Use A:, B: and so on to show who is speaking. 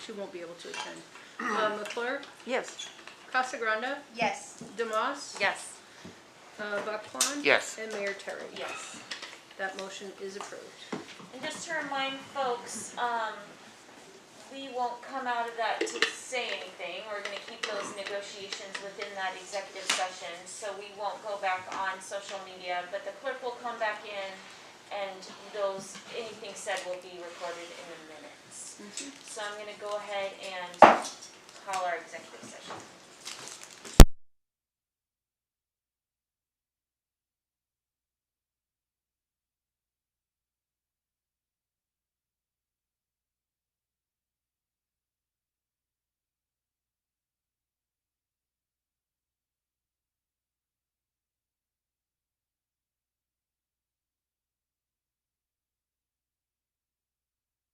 A: She won't be able to attend. Uh, McClure,
B: Yes.
A: Casa Grande,
C: Yes.
A: Demas.
B: Yes.
A: Uh, Buckhorn.
D: Yes.
A: And Mayor Terry.
E: Yes.
A: That motion is approved.
E: And just to remind folks, um, we won't come out of that to say anything. We're gonna keep those negotiations within that executive session, so we won't go back on social media. But the clerk will come back in and those, anything said will be recorded in the minutes. So I'm gonna go ahead and call our executive session.